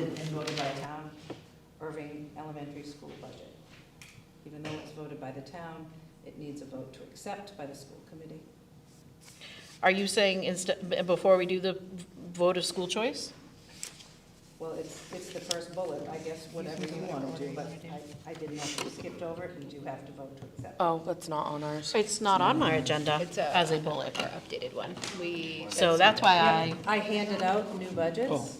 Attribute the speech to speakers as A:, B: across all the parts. A: and voted by town Irving Elementary School budget. Even though it's voted by the town, it needs a vote to accept by the school committee.
B: Are you saying instead, before we do the vote of school choice?
A: Well, it's, it's the first bullet, I guess, whatever you want to do, but I, I didn't know if you skipped over it, you do have to vote to accept.
C: Oh, that's not on ours.
B: It's not on my agenda
D: It's
B: as a bullet.
D: Our updated one. We.
B: So that's why I,
A: I handed out new budgets,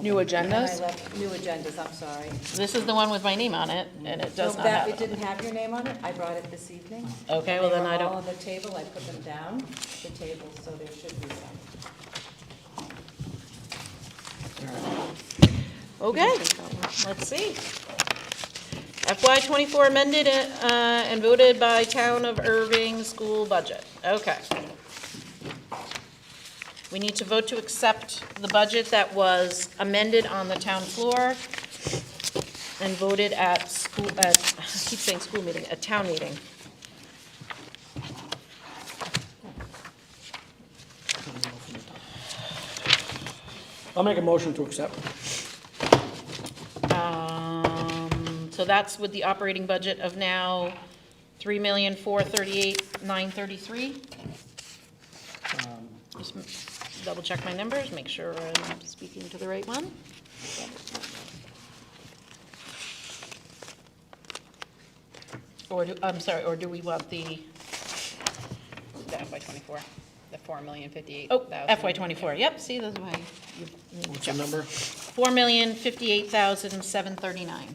C: New
A: and I
C: agendas?
A: left new agendas, I'm sorry.
B: this is the one with my name on it, and it does
A: So
B: not
A: that-
B: have
A: It
B: it.
A: didn't have your name on it, I brought it this evening.
B: Okay, well then I
A: They were all on
B: don't,
A: the table, I put them down, the table, so there should be some.
B: okay, let's see. FY twenty-four amended uh, and voted by Town of Irving School Budget, okay. We need to vote to accept the budget that was amended on the town floor and voted at school, at, I keep saying school meeting, at town meeting.
E: I'll make a motion to accept.
B: Um, so that's with the operating budget of now three million, four thirty-eight, nine thirty-three. Just m- double check my numbers, make sure I'm speaking to the right one. Or do, I'm sorry, or do we want the,
D: The FY twenty-four, the four million fifty-eight
B: oh,
D: thousand.
B: FY twenty-four, yep, see, that's why.
E: What's the number?
B: Four million, fifty-eight thousand, seven thirty-nine.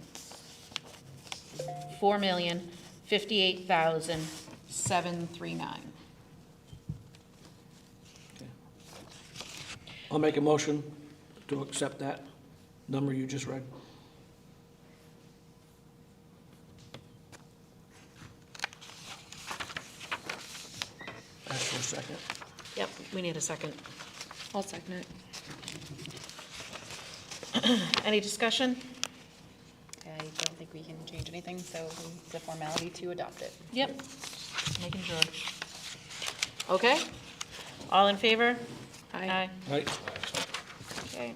B: Four million, fifty-eight thousand, seven three nine.
E: I'll make a motion to accept that number you just read. Ask for a second.
B: Yep, we need a second.
C: I'll second it.
B: Any discussion?
D: I don't think we can change anything, so it's a formality to adopt it.
B: Yep. Making sure. Okay, all in favor? Aye.
E: Right?
B: Okay.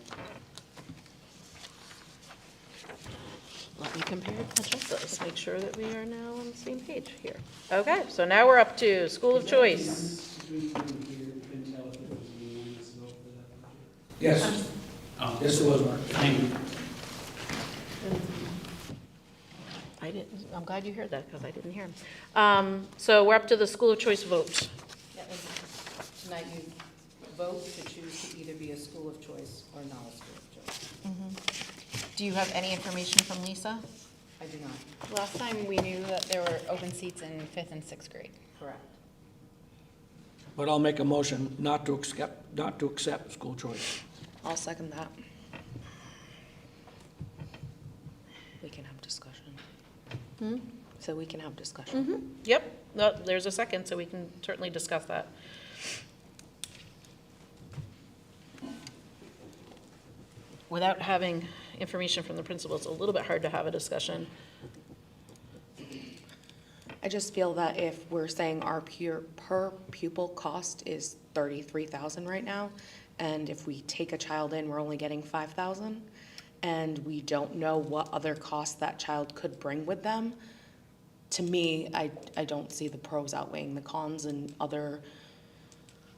B: Let me compare and contrast those, make sure that we are now on the same page here. Okay, so now we're up to school of choice.
E: Yes. Um, Yes, it was, Mark. Thank you.
B: I didn't, I'm glad you heard that, because I didn't hear him. Um, So we're up to the school of choice vote.
A: Yeah, and Tonight you vote to choose to either be a school of choice or not a school of choice.
B: Do you have any information from Lisa?
A: I do not,
D: Last time, we knew that there were open seats in fifth and sixth grade.
A: correct.
E: But I'll make a motion not to accept, not to accept school choice.
C: I'll second that. We can have discussion. So we can have discussion.
B: Yep, no, there's a second, so we can certainly discuss that. Without having information from the principal, it's a little bit hard to have a discussion.
C: I just feel that if we're saying our pure, per pupil cost is thirty-three thousand right now, and if we take a child in, we're only getting five thousand, and we don't know what other costs that child could bring with them, to me, I, I don't see the pros outweighing the cons and other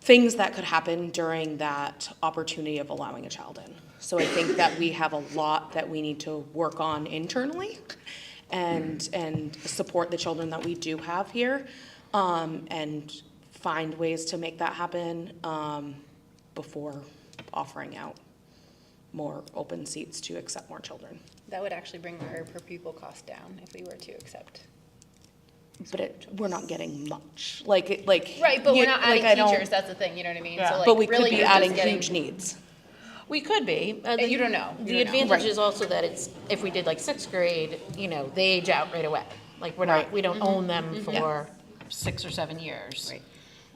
C: things that could happen during that opportunity of allowing a child in. So I think that we have a lot that we need to work on internally and, and support the children that we do have here, um, and find ways to make that happen, um, before offering out more open seats to accept more children.
D: That would actually bring our per pupil cost down if we were to accept.
C: But it, we're not getting much, like, it- like.
D: Right, but
C: you-
D: we're not
C: like,
D: adding
C: I don't-
D: teachers, that's the thing, you know what I mean?
B: Yeah.
D: So
C: But
D: like,
C: we could
D: really,
C: be
D: you're just
C: adding
D: getting-
C: huge needs.
B: We could be. uh, the-
D: You don't know. You
B: The
D: don't know.
B: advantage
C: Right.
B: is also that it's, if we did like sixth grade, you know, they age out right Mm-hmm. away. Like, we're not, we don't own them for six or seven years.
D: Right.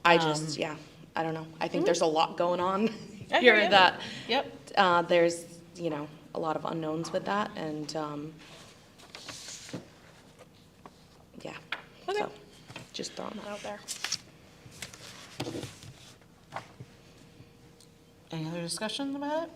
C: I just, yeah, I don't know. I think there's a lot going on
B: I hear
C: here
B: ya.
C: that,
B: Yep.
C: uh, there's, you know, a lot of unknowns with that and, um, yeah.
B: Okay.
C: So, Just throwing that out there.
B: Any other discussion about it?